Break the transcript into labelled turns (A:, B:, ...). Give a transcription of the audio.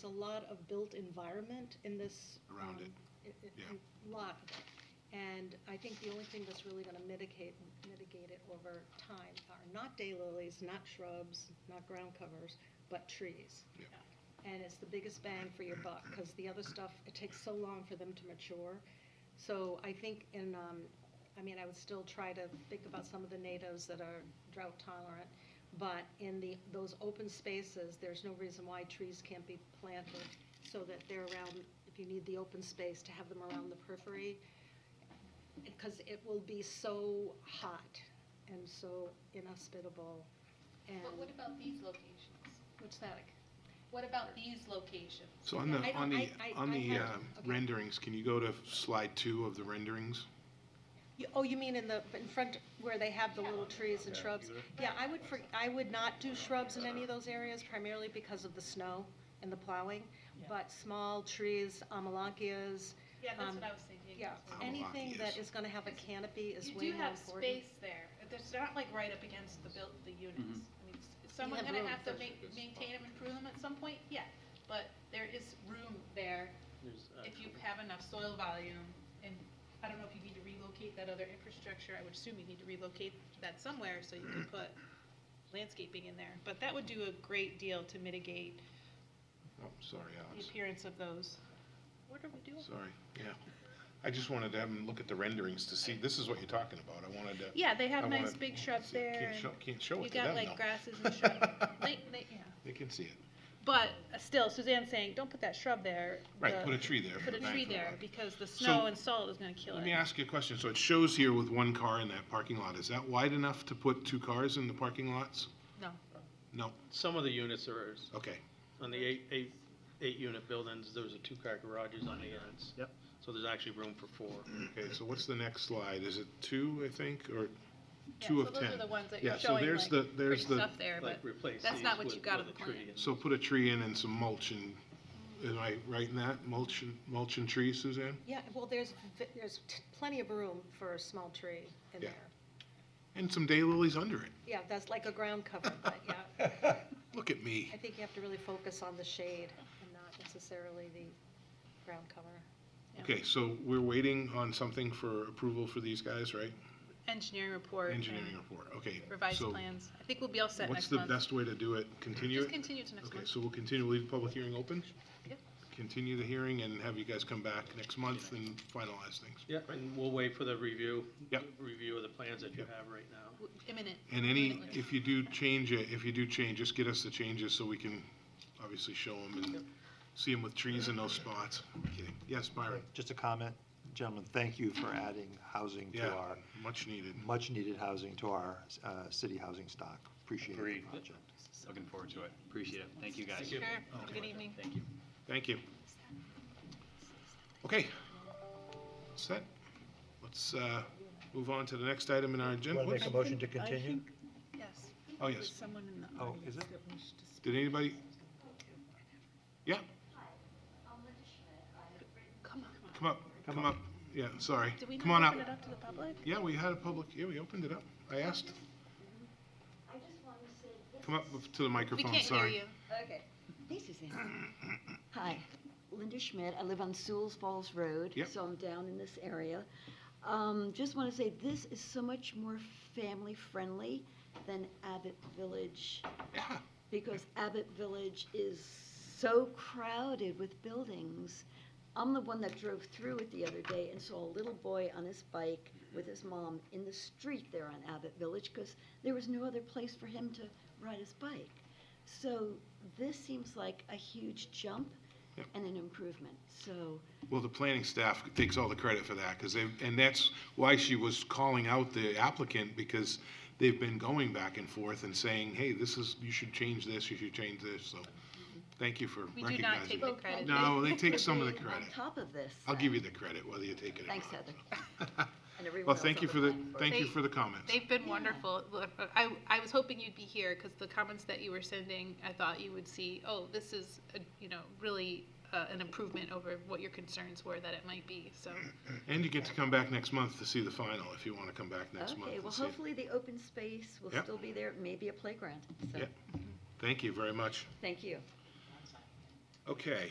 A: There's a lot of built environment in this.
B: Around
A: um, i- i-
B: yeah.
A: a Lot. of it. And I think the only thing that's really going to mitigate, mitigate it over time are not daylilies, not shrubs, not ground covers, but trees.
B: Yeah.
A: And it's the biggest bang for your buck, because the other stuff, it takes so long for them to mature. So I think in, um, I mean, I would still try to think about some of the natives that are drought tolerant, but in the, those open spaces, there's no reason why trees can't be planted so that they're around, if you need the open space, to have them around the periphery, because it will be so hot and so inhospitable and,
C: But what about these locations?
A: what's that?
C: What about these locations?
B: So on the,
A: I don't-
B: on the,
A: I- I-
B: on
A: I
B: the
A: had-
B: um,
A: okay.
B: renderings, can you go to slide two of the renderings?
A: You- Oh, you mean in the, in front where they have the
C: Yeah.
A: little trees and shrubs? Yeah, I would, for- I would not do shrubs in any of those areas primarily because of the snow and the plowing, but small trees, amelanchias,
C: Yeah, that's
A: Um,
C: what I was thinking.
A: yeah,
B: Amelanchias.
A: anything that is gonna have a canopy is
C: You
A: way
C: do
A: more
C: have
A: important.
C: space there. There's not like right up against the built, the units. I mean, s- is someone
A: Mm-hmm. have
C: gonna
A: room
C: have to
A: for-
C: ma- maintain them, improve them at some point? Yeah, but there is room there
D: There's, uh,
C: if you have enough soil volume. And I don't know if you need to relocate that other infrastructure. I would assume you need to relocate that somewhere so you can put landscaping in there. But that would do a great deal to mitigate
B: Oh, sorry,
C: the
B: Alex.
C: appearance of those. What are we doing?
B: Sorry, yeah. I just wanted to have them look at the renderings to see, this is what you're talking about. I wanted to.
C: Yeah, they
B: I
C: have nice
B: wanted-
C: big shrubs
B: see,
C: there.
B: Can't
C: and
B: show, can't show
C: You
B: it to
C: got
B: them
C: like
B: though.
C: grasses and shrubs. They, they, yeah.
B: They can see it.
C: But uh, still, Suzanne's saying, don't put that shrub there.
B: Right,
C: The-
B: put a tree there.
C: Put a
B: Thank
C: tree
B: you.
C: there because the snow
B: So-
C: and salt is gonna kill
B: Let me
C: it.
B: ask you a question. So it shows here with one car in that parking lot. Is that wide enough to put two cars in the parking lots?
C: No.
B: No,
D: Some of the units are,
B: okay.
D: on the eight, eight, eight-unit buildings, those are two-car garages on the ends. Yep. So there's actually room for four.
B: Okay, so what's the next slide? Is it two, I think, or two of ten?
C: Those are the ones that
B: Yeah,
C: you're
B: so
C: showing,
B: there's the-
C: like,
B: there's
C: pretty
B: the-
C: stuff there, but
D: Like replace
C: that's
D: these
C: not what
D: with-
C: you got
D: with
C: on the
D: a tree
C: plan.
D: and-
B: So put a tree in and some mulch and, am I right in that? Mulch and, mulch and trees, Suzanne?
A: Yeah, well, there's, v- there's t- plenty of room for a small tree in
B: Yeah.
A: there.
B: And some daylilies under it.
A: Yeah, that's like a ground cover, but yeah,
B: Look at me.
A: I think you have to really focus on the shade and not necessarily the ground cover.
B: Okay, so we're waiting on something for approval for these guys, right?
C: engineering report and
B: Engineering report, okay.
C: revised
B: so
C: plans. I think we'll be all set
B: What's
C: next
B: the
C: month.
B: best way to do it? Continue
C: Just
B: it?
C: continue to next
B: Okay,
C: month.
B: so we'll continue, leave the public hearing open?
C: Yep.
B: Continue the hearing and have you guys come back next month and finalize things.
D: Yeah, and we'll wait for the review.
B: Yep.
D: Review of the plans that you
B: Yep.
D: have right now.
C: W- Imminent.
B: And any,
C: Absolutely.
B: if you do change it, if you do change, just get us the changes so we can obviously show them and see them with trees in those spots. Kidding. Yes, Byron?
E: Just a comment, gentlemen, thank you for adding housing to
B: Yeah,
E: our,
B: much needed.
E: much-needed housing to our uh, city housing stock. Appreciate the
F: Agreed.
E: project.
F: Looking forward to it. Appreciate it. Thank you, guys.
D: Thank you.
C: Sure. Have a Good evening.
F: Thank you.
B: Thank you. Okay. Set. Let's uh, move on to the next item in our agenda.
E: Want to make a
B: Whoops.
E: motion to continue?
C: Yes.
B: Oh,
C: With
B: yes.
C: Someone in the
E: Oh,
C: audience.
E: is it?
B: Did anybody? Yeah,
C: Come on, come on.
B: come up,
E: Come
B: come
E: up.
B: up. Yeah, sorry.
C: Did we
B: Come on
C: not
B: up.
C: open it up to the public?
B: Yeah, we had a public, yeah, we opened it up. I asked. Come up to the
C: We
B: microphone,
C: can't hear
B: sorry.
C: you.
G: Okay. This is it. Hi, Linda Schmidt. I live on Sewell's Falls Road.
B: Yep.
G: So I'm down in this area. Um, just want to say this is so much more family friendly than Abbott Village
B: Yeah.
G: because Abbott Village is so crowded with buildings. I'm the one that drove through it the other day and saw a little boy on his bike with his mom in the street there on Abbott Village because there was no other place for him to ride his bike. So this seems like a huge jump
B: Yep.
G: and an improvement. So
B: Well, the planning staff takes all the credit for that, because they, and that's why she was calling out the applicant, because they've been going back and forth and saying, hey, this is, you should change this, you should change this, so thank you for
C: We do not
B: recognizing.
C: take the
B: it.
C: credit.
B: No, they take
G: for
B: some of the
G: being on
B: credit.
G: top of this.
B: I'll give you the credit, whether you take it or not.
G: Thanks, Heather. And everyone
B: Well,
G: else
B: thank
G: on
B: you for the,
G: planning board.
B: thank you
C: They-
B: for the comments.
C: They've been wonderful. Look, I, I was hoping you'd be here because the comments that you were sending, I thought you would see, oh, this is, a, you know, really uh, an improvement over what your concerns were that it might be. So
B: And you get to come back next month to see the final, if you want to come back next month
G: Okay, well,
B: and see it.
G: hopefully the open space will
B: Yep.
G: still be there, maybe a playground, so,
B: Yep. Thank you very much.
G: thank you.
B: Um, Okay.